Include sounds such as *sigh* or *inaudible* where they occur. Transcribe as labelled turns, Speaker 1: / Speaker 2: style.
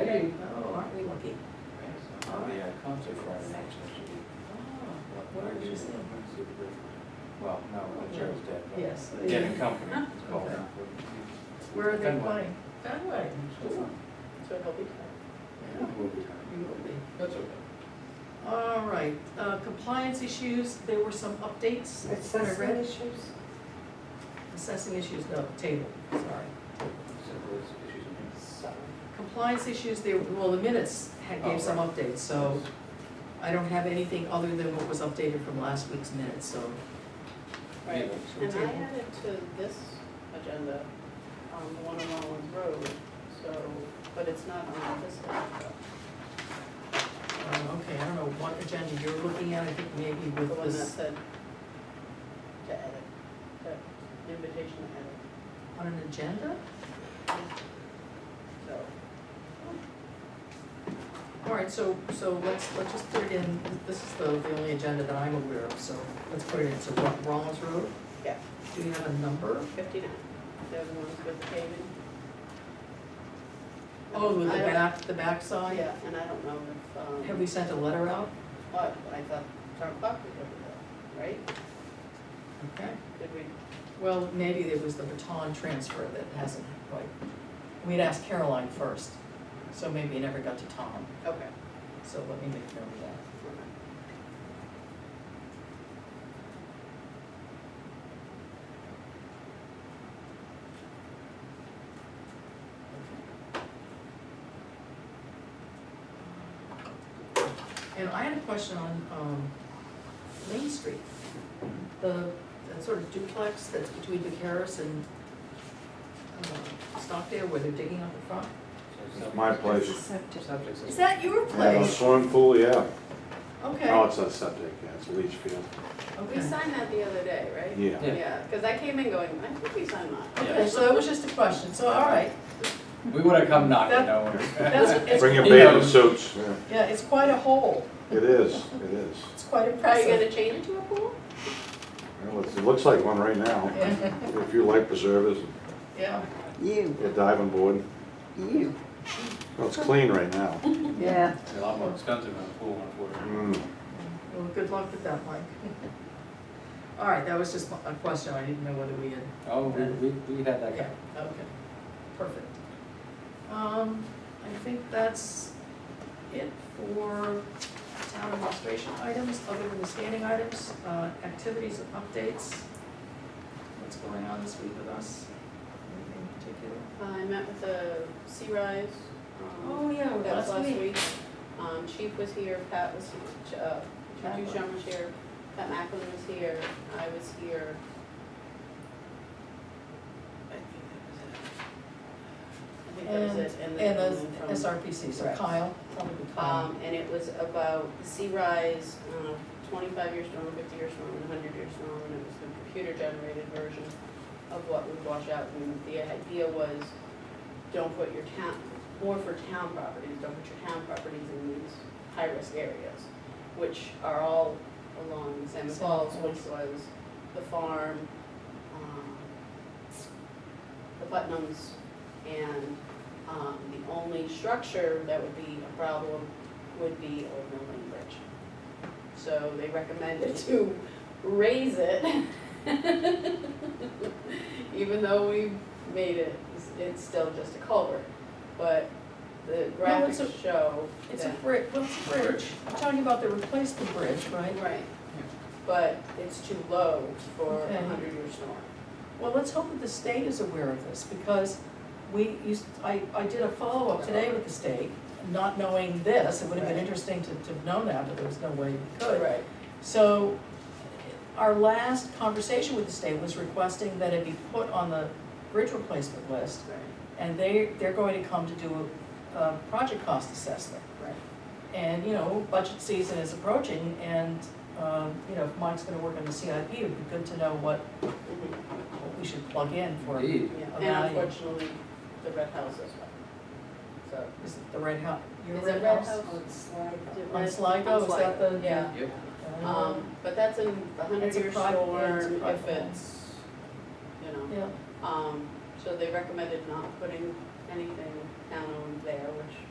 Speaker 1: oh, Oh,
Speaker 2: insurance tech. right?
Speaker 1: Yes. the-
Speaker 2: Yeah, the company. it's called.
Speaker 1: Okay. Where are they
Speaker 2: Fenway.
Speaker 1: playing? Fenway.
Speaker 2: Sure.
Speaker 3: So it'll be
Speaker 1: Yeah, you will be.
Speaker 2: That's okay.
Speaker 1: All right, uh, compliance issues, there were some updates. that I
Speaker 4: Assessment
Speaker 1: read.
Speaker 4: issues?
Speaker 1: Assessing issues, no, table, sorry.
Speaker 2: Simple as issues in here.
Speaker 4: Sorry.
Speaker 1: Compliance issues, there, well, the minutes had,
Speaker 2: Oh,
Speaker 1: gave some
Speaker 2: right.
Speaker 1: updates, so I don't have anything other than what was updated from last week's minutes, so.
Speaker 3: Right,
Speaker 1: Should we
Speaker 3: and I
Speaker 1: table?
Speaker 3: added to this agenda, um, the one on Rollins Road, so, but it's not on this agenda.
Speaker 1: Uh, okay, I don't know what agenda you're looking at, I think maybe
Speaker 3: The
Speaker 1: with
Speaker 3: one that
Speaker 1: this,
Speaker 3: said to edit, that invitation to
Speaker 1: on an agenda?
Speaker 3: edit, so.
Speaker 1: All right, so, so let's, let's just put it in, this is the, the only agenda that I'm aware of, so let's put it in, so what, Rollins Road?
Speaker 3: Yeah.
Speaker 1: Do we have a number?
Speaker 3: Fifty-nine, the other one's with the paving.
Speaker 1: Oh, with the
Speaker 3: I don't-
Speaker 1: back, the backside?
Speaker 3: Yeah, and I don't know if, um.
Speaker 1: Have we sent a letter out?
Speaker 3: What, I thought Tom Buck was over there, right?
Speaker 1: Okay.
Speaker 3: Did we?
Speaker 1: Well, maybe there was the baton transfer that hasn't quite, we'd asked Caroline first, so maybe it never got to Tom,
Speaker 3: Okay.
Speaker 1: so let me make note of that. And I had a question on, um, Main Street, the, that sort of duplex that's between Vicaris and, uh, Stockdale where they're digging up the front.
Speaker 2: So
Speaker 5: It's my
Speaker 4: It's a
Speaker 5: place.
Speaker 4: septic.
Speaker 2: Subjects
Speaker 1: Is
Speaker 2: is-
Speaker 1: that your
Speaker 5: I have a
Speaker 1: place?
Speaker 5: swimming pool, yeah.
Speaker 1: Okay,
Speaker 5: No, it's not septic, yeah, it's a leach field.
Speaker 3: We
Speaker 1: okay.
Speaker 3: signed that the other day, right?
Speaker 5: Yeah.
Speaker 2: Yeah.
Speaker 3: Yeah, because I came in going, I think we signed that.
Speaker 1: Okay, so that was just a question, so all right,
Speaker 2: We would have come
Speaker 1: That-
Speaker 2: knocking, no.
Speaker 1: that's, it's,
Speaker 5: *laughs* Bring your
Speaker 2: You know-
Speaker 5: bathing suits. Yeah.
Speaker 1: yeah, it's quite a hole,
Speaker 5: It is, it is.
Speaker 1: it's quite
Speaker 3: Are you
Speaker 1: impressive.
Speaker 3: gonna change it to a pool?
Speaker 5: Well, it's- It looks like one right now.
Speaker 1: Yeah,
Speaker 5: A few life preservers,
Speaker 1: yeah,
Speaker 4: You,
Speaker 5: a diving board.
Speaker 4: you,
Speaker 5: Well, it's clean right now.
Speaker 4: yeah.
Speaker 2: It's a lot more expensive than a pool, unfortunately.
Speaker 5: Mm.
Speaker 1: well, good luck with that, Mike. *laughs* All right, that was just a question, I didn't know whether we had
Speaker 2: Oh, we, we- we had that
Speaker 1: Okay,
Speaker 2: guy.
Speaker 1: okay, perfect. Um, I think that's it for town administration items, other than the standing items, uh, activities and updates. What's going on this week with us? Anything in particular?
Speaker 3: Uh, I met with the Sea Rise. um,
Speaker 1: Oh, yeah,
Speaker 3: That was
Speaker 1: last
Speaker 3: last
Speaker 1: week.
Speaker 3: week. Um, Chief was here, Pat was, uh,
Speaker 1: Macklin.
Speaker 3: Duchamp was here, Pat Macklin was here, I was here. I think that was it. I think that was it, and then.
Speaker 1: And
Speaker 3: and then
Speaker 1: the
Speaker 3: from-
Speaker 1: SRPC, so
Speaker 3: Correct.
Speaker 1: Kyle, probably Kyle.
Speaker 3: Um, and it was about the sea rise, uh, twenty-five years storm, fifty years storm, and hundred years storm, and it was the computer generated version of what would wash out, and the idea was, don't put your town, or for town properties, don't put your town properties in these high-risk areas, which are all along Salmon
Speaker 1: Salmon
Speaker 3: Falls, which was the farm, um, the Putnams, and um, the only structure that would be a problem would be Old Mill Lane Bridge. So they recommended to raise it. *laughs* Even though we made it, it's- it's still just a culvert. But the
Speaker 1: No, it's a-
Speaker 3: graphics show
Speaker 1: It's a
Speaker 3: that.
Speaker 1: bridge, what's a bridge? I'm talking about the replacement bridge, right?
Speaker 3: Right. But it's too low for
Speaker 1: Okay.
Speaker 3: a hundred-year storm.
Speaker 1: Well, let's hope that the state is aware of this, because we used, I, I did a follow-up today with the state, not knowing this, it would have been
Speaker 3: Right.
Speaker 1: interesting to, to have known that, but there was no way we could.
Speaker 3: Right.
Speaker 1: So, our last conversation with the state was requesting that it be put on the bridge replacement list,
Speaker 3: Right,
Speaker 1: and they, they're going to come to do a, a project cost assessment.
Speaker 3: right.
Speaker 1: And, you know, budget season is approaching, and, um, you know, if Mike's gonna work on the CIP, it'd be good to know what,
Speaker 3: Mhm,
Speaker 1: what we should plug in for.
Speaker 2: Indeed.
Speaker 3: yeah.
Speaker 1: A
Speaker 3: And
Speaker 1: value.
Speaker 3: unfortunately, the red house as well. So.
Speaker 1: Is it the red house? Your
Speaker 3: Is it
Speaker 1: red
Speaker 3: red
Speaker 1: house? Oh,
Speaker 3: house?
Speaker 4: Sligo.
Speaker 1: On Sligo, is that the?
Speaker 3: Yeah.
Speaker 2: Yep.
Speaker 3: Um, but that's a hundred
Speaker 1: It's a
Speaker 3: year
Speaker 1: private- yeah, it's a
Speaker 3: storm
Speaker 1: private
Speaker 3: if
Speaker 1: home.
Speaker 3: it's, you know,
Speaker 1: Yeah,
Speaker 3: um, so they recommended not putting anything down on there, which